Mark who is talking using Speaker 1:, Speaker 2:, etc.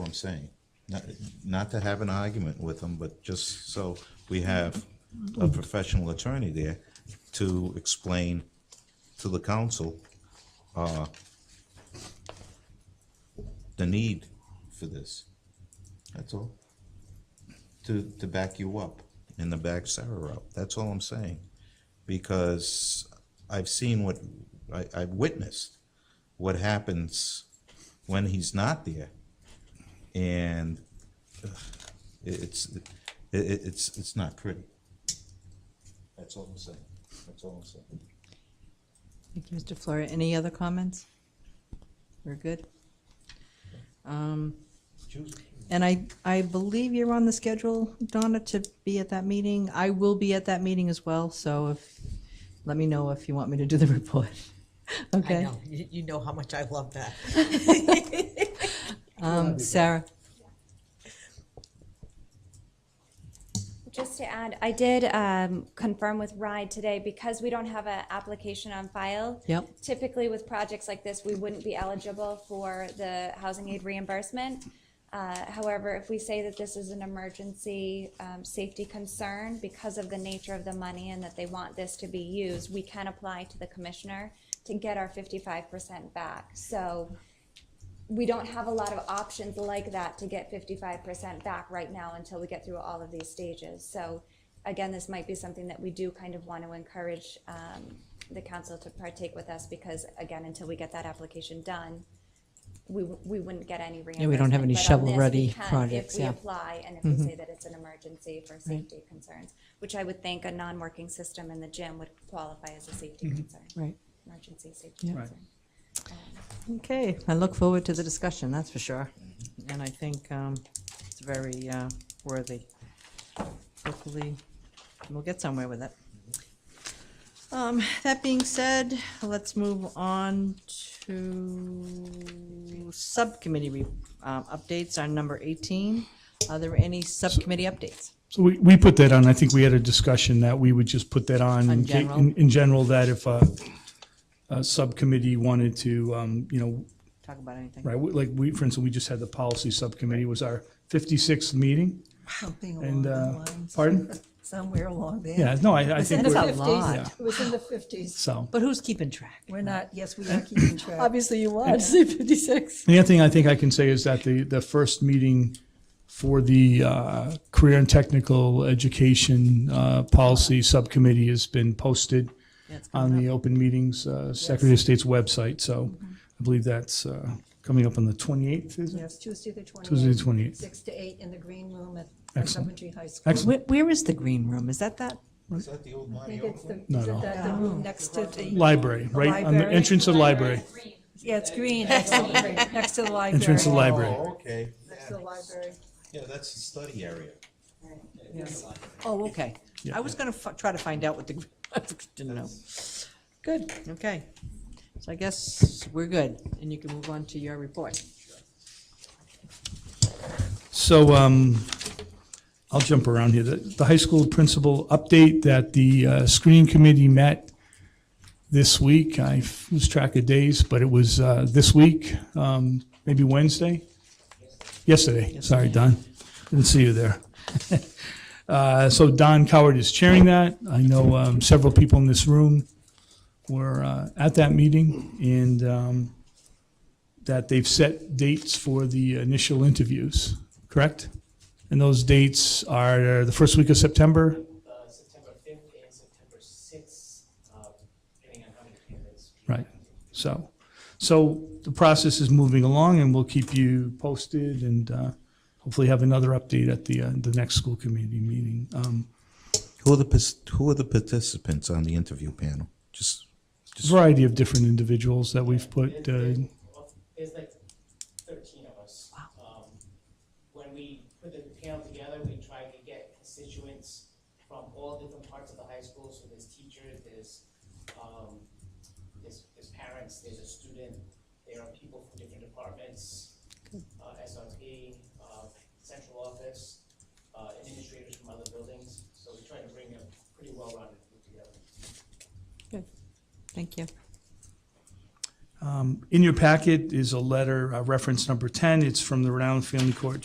Speaker 1: I'm saying. Not, not to have an argument with them, but just so we have a professional attorney there to explain to the council, uh, the need for this. That's all. To, to back you up and to back Sarah up. That's all I'm saying. Because I've seen what, I, I've witnessed what happens when he's not there. And ugh, it- it's, it, it- it's, it's not pretty. That's all I'm saying. That's all I'm saying.
Speaker 2: Thank you, Mr. Flora. Any other comments? We're good? Um,
Speaker 1: Choose-
Speaker 2: And I, I believe you're on the schedule, Donna, to be at that meeting. I will be at that meeting as well, so if, let me know if you want me to do the report.
Speaker 3: I
Speaker 2: Okay?
Speaker 3: know, you, you know how much I love that.
Speaker 2: Um, Sarah,
Speaker 4: Just to add, I did um, confirm with RIDE today, because we don't have an application on file.
Speaker 2: Yep.
Speaker 4: Typically with projects like this, we wouldn't be eligible for the housing aid reimbursement. Uh, However, if we say that this is an emergency um, safety concern because of the nature of the money and that they want this to be used, we can apply to the commissioner to get our fifty-five percent back. So we don't have a lot of options like that to get fifty-five percent back right now until we get through all of these stages. So again, this might be something that we do kind of want to encourage um, the council to partake with us because again, until we get that application done, we, w- we wouldn't get any reimbursement.
Speaker 2: we don't have any
Speaker 4: But on this, we
Speaker 2: shovel-ready
Speaker 4: can
Speaker 2: projects, yeah. Mm-hmm.
Speaker 4: If we apply and if we say that it's an emergency for safety concerns, which I would think a non-working system in the gym would qualify as a safety concern,
Speaker 2: Mm-hmm. right.
Speaker 4: emergency safety
Speaker 2: Yeah.
Speaker 4: concern.
Speaker 2: Okay, I look forward to the discussion, that's for sure. And I think um, it's very uh, worthy. Hopefully, we'll get somewhere with it. Um, That being said, let's move on to subcommittee re- um, updates on number 18. Are there any subcommittee updates?
Speaker 5: So we, we put that on, I think we had a discussion that we would just put that
Speaker 2: On
Speaker 5: on. in ca-
Speaker 2: general?
Speaker 5: In, in general, that if a, a subcommittee wanted to, um, you know,
Speaker 2: Talk about anything?
Speaker 5: right, we- like we, for instance, we just had the policy subcommittee, It was our fifty-sixth meeting,
Speaker 6: Something along
Speaker 5: and,
Speaker 6: those
Speaker 5: uh,
Speaker 6: lines,
Speaker 5: pardon?
Speaker 6: somewhere along there.
Speaker 5: Yeah, no, I, I
Speaker 6: It was in
Speaker 5: think,
Speaker 6: the
Speaker 5: we're-
Speaker 2: That's a
Speaker 6: 50s.
Speaker 2: lot.
Speaker 6: It was in the fifties.
Speaker 5: so.
Speaker 2: But who's keeping track?
Speaker 6: We're not, yes, we are keeping track.
Speaker 2: Obviously, you want to say 56.
Speaker 5: The other thing I think I can say is that the, the first meeting for the uh, Career and Technical Education uh, Policy Subcommittee has been posted
Speaker 2: Yeah, it's coming Mm-hmm.
Speaker 5: on the Open Meetings uh, Secretary of State's website, so I believe that's uh, coming up on the 28th, is it?
Speaker 6: Yes, Tuesday the
Speaker 5: Tuesday, 28th.
Speaker 6: twenty-eighth, six to eight in the green room at at
Speaker 5: Excellent.
Speaker 6: Coventry High School.
Speaker 5: Excellent.
Speaker 2: Where, where is the green room? Is that that?
Speaker 1: Is that the old
Speaker 6: I
Speaker 1: Monty
Speaker 6: think it's the,
Speaker 5: No,
Speaker 6: is
Speaker 5: no.
Speaker 6: it that the room next to the,
Speaker 5: Library, right, on the
Speaker 6: Library.
Speaker 5: entrance of the library,
Speaker 6: yeah, it's green, next to the next to the library.
Speaker 5: entrance of the library.
Speaker 1: Oh, okay.
Speaker 6: Next to the library.
Speaker 1: Yeah, that's the study area.
Speaker 2: Oh, okay.
Speaker 5: Yeah.
Speaker 2: I was gonna fi- try to find out what the, I didn't know. Good, okay. So I guess we're good, and you can move on to your report.
Speaker 5: So um, I'll jump around here. The, the high school principal update that the uh, screening committee met this week. I lose track of days, but it was uh, this week, um, maybe Wednesday? Yesterday. Sorry, Don. Didn't see you there. Uh, so Don Coward is chairing that. I know um, several people in this room were uh, at that meeting, and um, that they've set dates for the initial interviews, correct? And those dates are the first week of September,
Speaker 7: uh, September fifth and September sixth, uh, depending on how many candidates. we
Speaker 5: Right.
Speaker 7: have.
Speaker 5: so. So the process is moving along and we'll keep you posted and uh, hopefully have another update at the, uh, the next school committee meeting. Um,
Speaker 1: Who are the, pers- who are the participants on the interview panel? Just,
Speaker 5: Variety of different individuals that we've put,
Speaker 7: There's-
Speaker 5: uh,
Speaker 7: there's- well, There's like thirteen of us. Um, When we put the panel together, we tried to get constituents from all different parts of the high school, so there's teachers, there's, um, there's, there's parents, there's a student, there are people from different departments, uh, SRP, uh, central office, uh, administrators from other buildings, so we tried to bring a pretty well-rounded group together.
Speaker 2: Thank you.
Speaker 5: um, Um, In your packet is a letter, uh, reference number 10. It's from the Rhode Island Family Court